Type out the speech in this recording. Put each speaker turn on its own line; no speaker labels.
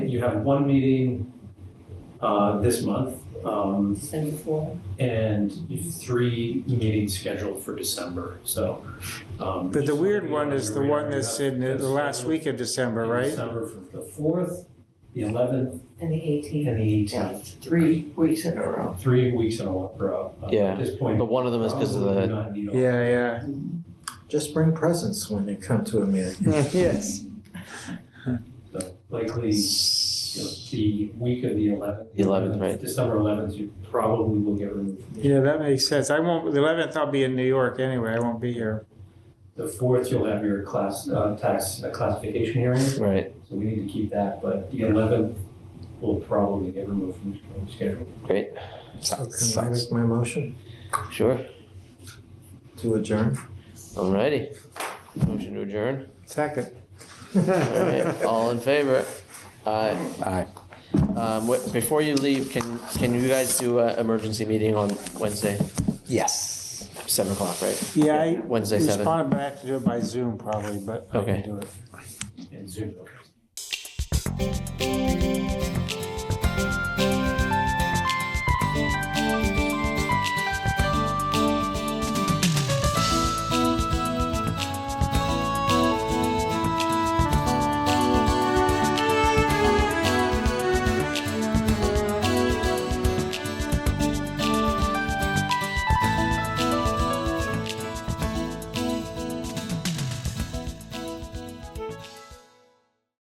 you have one meeting uh, this month, um,
December fourth.
and three meetings scheduled for December, so. um,
But the
just
weird
wanna
one
be
is
on
the
your
one
radar.
that's in the the last week of December, right?
December for the fourth, the eleventh,
And the eighteenth.
and the eighteenth,
Three weeks in a row.
three weeks in a row. Uh,
Yeah,
At this point.
But one of them is because of the,
Yeah, yeah.
Just bring presents when you come to a meeting.
Yes.
So Likely, you know, the week of the eleventh.
The 11th, right.
December eleventh, you probably will get removed. from the-
Yeah, that makes sense. I won't, the 11th, I'll be in New York anyway. I won't be here.
The fourth, you'll have your class, uh, tax uh, classification hearing, so
right,
we need to keep that, but the eleventh will probably get removed from the schedule.
great,
So Can I make my motion
sure,
to adjourn?
alrighty. Motion to adjourn,
Second.
alright, all in favor? Aye.
Aye.
Um, wh- before you leave, can, can you guys do a emergency meeting on Wednesday,
Yes.
seven o'clock, right?
Yeah, I
Wednesday, seven,
responded, but I have to do it by Zoom probably, but I
Okay.
can do it.
And Zoom.